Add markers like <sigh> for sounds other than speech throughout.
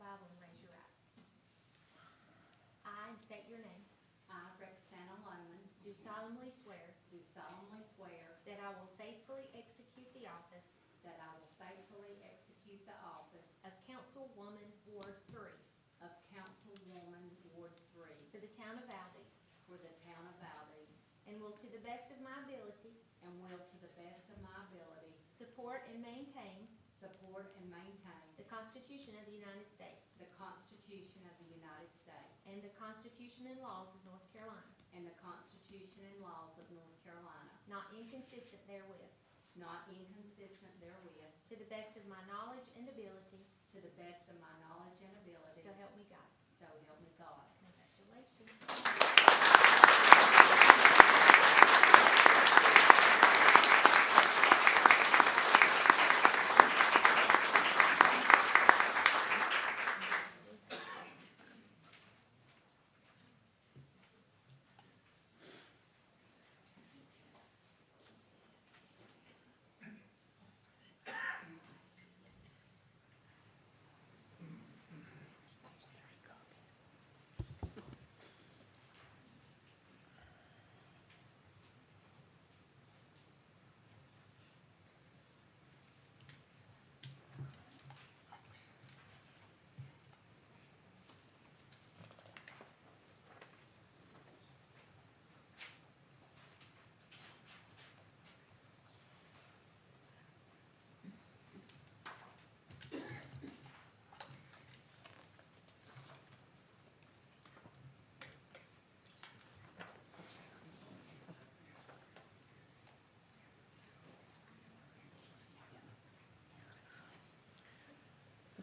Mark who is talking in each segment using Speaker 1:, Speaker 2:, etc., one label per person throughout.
Speaker 1: Bible and raise your right. I, and state your name,
Speaker 2: I, Rick Santa Loman,
Speaker 1: do solemnly swear
Speaker 2: do solemnly swear
Speaker 1: that I will faithfully execute the office
Speaker 2: that I will faithfully execute the office
Speaker 1: of Councilwoman Ward Three
Speaker 2: of Councilwoman Ward Three
Speaker 1: for the town of Valdez,
Speaker 2: for the town of Valdez,
Speaker 1: and will to the best of my ability
Speaker 2: and will to the best of my ability
Speaker 1: support and maintain
Speaker 2: support and maintain
Speaker 1: the Constitution of the United States
Speaker 2: the Constitution of the United States
Speaker 1: and the Constitution and laws of North Carolina,
Speaker 2: and the Constitution and laws of North Carolina,
Speaker 1: not inconsistent therewith,
Speaker 2: not inconsistent therewith,
Speaker 1: to the best of my knowledge and ability,
Speaker 2: to the best of my knowledge and ability,
Speaker 1: so help me God.
Speaker 2: so help me God.
Speaker 1: Congratulations.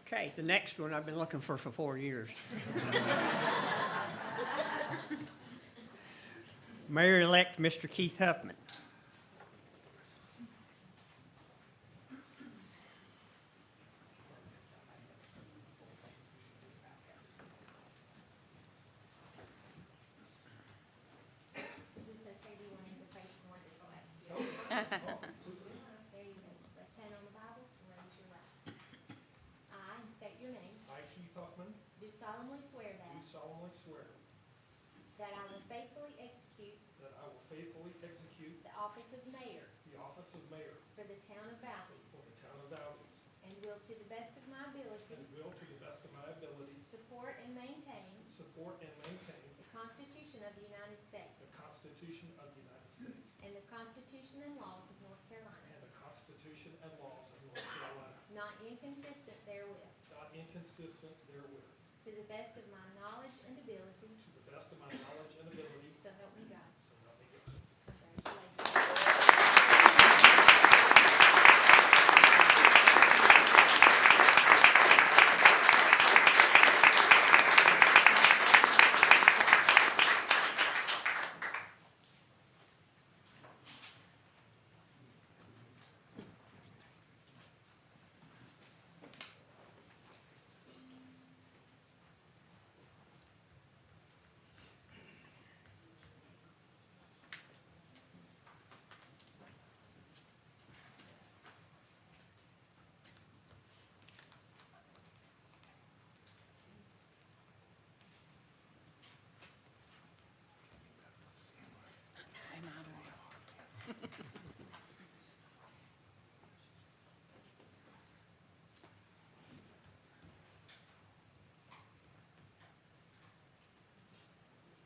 Speaker 3: Okay, the next one I've been looking for for four years. Mayor-elect Mr. Keith Huffman.
Speaker 1: Is this okay? Do you want him to face more this way? There you go. Left hand on the Bible and raise your right. I, and state your name,
Speaker 4: I, Keith Huffman,
Speaker 1: do solemnly swear
Speaker 4: do
Speaker 1: that,
Speaker 4: solemnly swear
Speaker 1: that I will faithfully execute
Speaker 4: that I will faithfully execute
Speaker 1: the office of mayor
Speaker 4: the office of mayor
Speaker 1: for the town of
Speaker 4: for
Speaker 1: Valdez,
Speaker 4: the town of Valdez,
Speaker 1: and will to the best of my
Speaker 4: and
Speaker 1: ability
Speaker 4: will, to the best of my abilities,
Speaker 1: support and maintain
Speaker 4: support and maintain
Speaker 1: the Constitution of the United States
Speaker 4: the Constitution of the United States
Speaker 1: and the Constitution and laws of North Carolina,
Speaker 4: and the Constitution and laws of North Carolina,
Speaker 1: not inconsistent therewith,
Speaker 4: not inconsistent therewith,
Speaker 1: to the best of my knowledge and ability,
Speaker 4: to the best of my knowledge and abilities,
Speaker 1: so help me God.
Speaker 4: so help me God.
Speaker 1: Congratulations.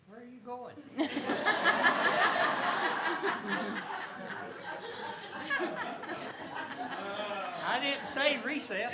Speaker 3: Where are you going? <laughs> I didn't say recess.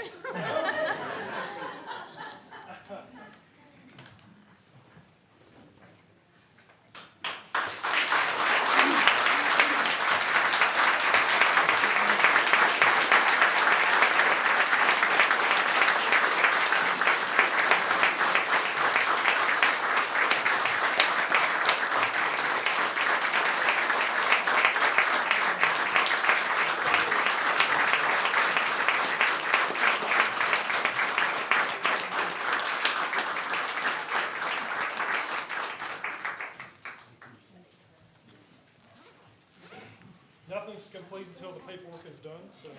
Speaker 4: Nothing's complete until the paperwork is done, so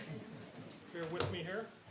Speaker 4: bear with me here.